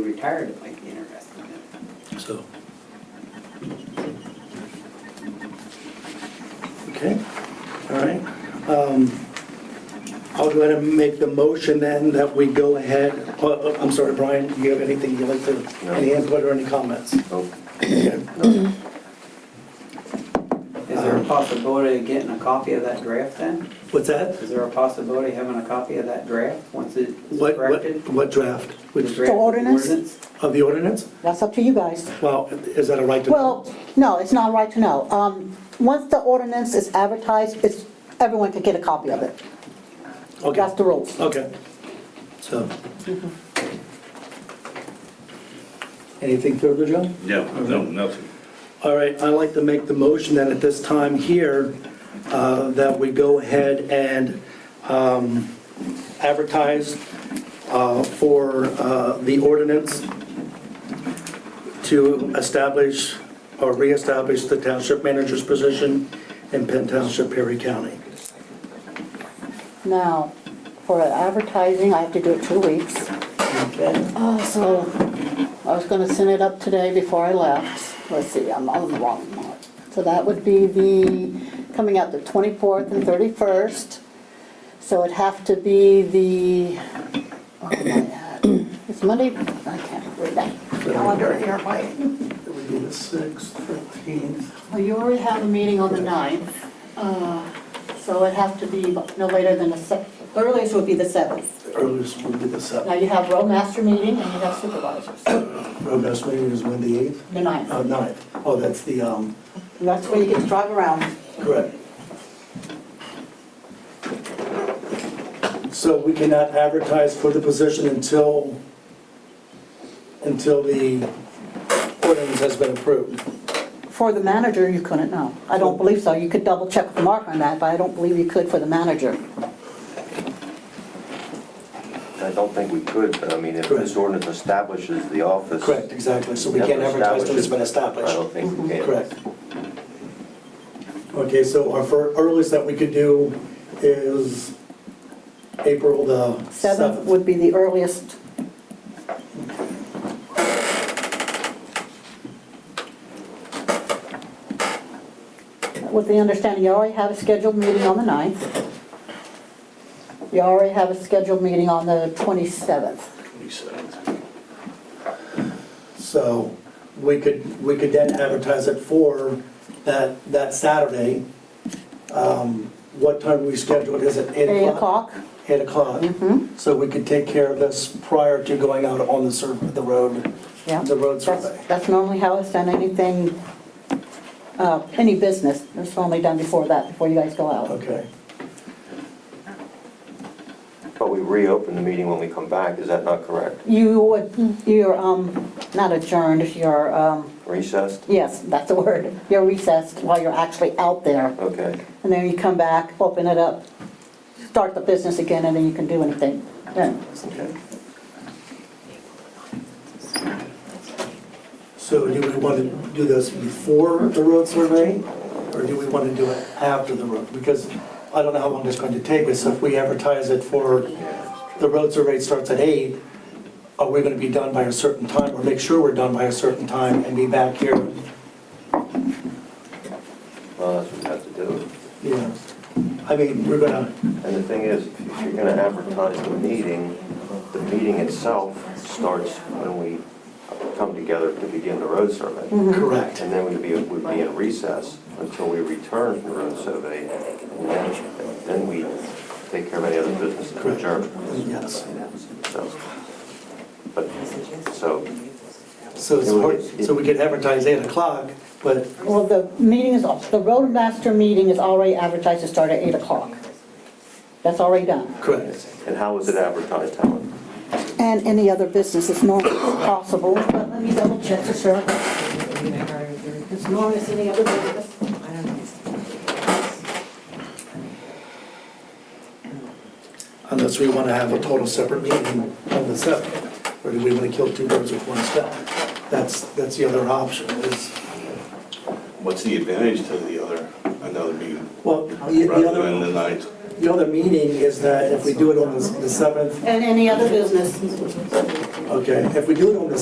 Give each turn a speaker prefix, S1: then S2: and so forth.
S1: retired, it might be interesting.
S2: so. Okay, all right. Um, I'll go ahead and make the motion then that we go ahead, oh, oh, I'm sorry, Brian, do you have anything you'd like to, any input or any comments?
S3: Nope.
S2: Okay.
S1: Is there a possibility of getting a copy of that draft then?
S2: What's that?
S1: Is there a possibility of having a copy of that draft once it's
S2: What,
S1: corrected?
S2: what, what draft?
S1: With
S2: Which,
S1: draft of the
S4: ordinance?
S2: of the ordinance?
S4: That's up to you guys.
S2: Well, is that a right to?
S4: Well, no, it's not right to know. Um, Once the ordinance is advertised, it's, everyone can get a copy of it.
S2: Okay.
S4: That's the rules.
S2: Okay, so. Anything further, Joe?
S5: No, no, nothing.
S2: All right, I'd like to make the motion that at this time here, uh, that we go ahead and um, advertise uh, for uh, the ordinance to establish or reestablish the township manager's position in Penn Township, Perry County.
S4: Now, for advertising, I have to do it two weeks. Uh, So I was going to send it up today before I left. Let's see, I'm on the wrong one. So that would be the, coming out the 24th and 31st. So it'd have to be the, what am I at? It's Monday, I can't read that.
S2: Calendar here, Mike. It would be the 6th, 13th.
S4: Well, you already have a meeting on the 9th, uh, so it'd have to be no later than the 7th. Earliest would be the 7th.
S2: Earliest would be the
S4: Now
S2: 7th.
S4: you have road master meeting and you have supervisors, the
S2: Road best meeting is when, the 8th?
S4: 9th.
S2: Uh, 9th. Oh, that's the, um,
S4: And that's where you get to drive around.
S2: correct. So we cannot advertise for the position until, until the ordinance has been approved.
S4: For the manager, you couldn't know. I don't believe so. You could double check with Mark on that, but I don't believe you could for the manager.
S3: I don't think we could, but I mean, if
S2: Correct.
S3: this ordinance establishes the office.
S2: Correct, exactly. So we can't
S3: Never
S2: advertise till it's been
S3: established.
S2: established.
S3: I don't think we can.
S2: Correct. Okay, so our fir- earliest that we could do is April the
S4: 7th
S2: 7th.
S4: would be the earliest. With the understanding, you already have a scheduled meeting on the 9th. You already have a scheduled meeting on the 27th.
S2: So we could, we could then advertise it for that, that Saturday. Um, What time we scheduled, is it
S4: 8
S2: eight o'clock? Mm-hmm.
S4: o'clock? Mm-hmm.
S2: 8 o'clock. So we could take care of this prior to going out on the sur, the road,
S4: Yeah.
S2: the road
S4: That's
S2: survey.
S4: that's normally how it's done, anything, uh, any business, it's normally done before that, before you guys go out.
S2: Okay.
S3: But we reopen the meeting when we come back, is that not correct?
S4: You would, you're um, not adjourned, you're, um,
S3: Recessed?
S4: yes, that's the word, you're recessed while you're actually out there.
S3: Okay.
S4: And then you come back, open it up, start the business again, and then you can do anything then.
S3: Okay.
S2: So do we want to do this before the road survey, or do we want to do it after the road? Because I don't know how long it's going to take us, if we advertise it for, the road survey starts at eight, are we going to be done by a certain time, or make sure we're done by a certain time and be back here?
S3: Well, that's what we have to do.
S2: Yeah, I mean, we're gonna,
S3: And the thing is, if you're gonna advertise the meeting, the meeting itself starts when we come together to begin the road survey.
S2: correct.
S3: And then we'd be, we'd be in recess until we return from the road survey. And then, then we take care of any other business and adjourn.
S2: Yes.
S3: So, but, so,
S2: So it's, hard- so we could advertise eight o'clock, but,
S4: Well, the meeting is, the roadmaster meeting is already advertised to start at 8 o'clock. That's already done.
S2: correct.
S3: and how is it advertised, Helen?
S4: And any other business is normally possible, but let me double check for sure. It's normally it's any other business.
S2: Unless we want to have a total separate meeting on the seventh, or do we want to kill two birds with one stone? That's, that's the other option is,
S5: What's the advantage to the other, another meeting,
S2: well, the the
S5: rather than the
S2: other,
S5: ninth?
S2: the other meeting is that if we do it on the the seventh,
S4: And any other business.
S2: okay, if we do it on the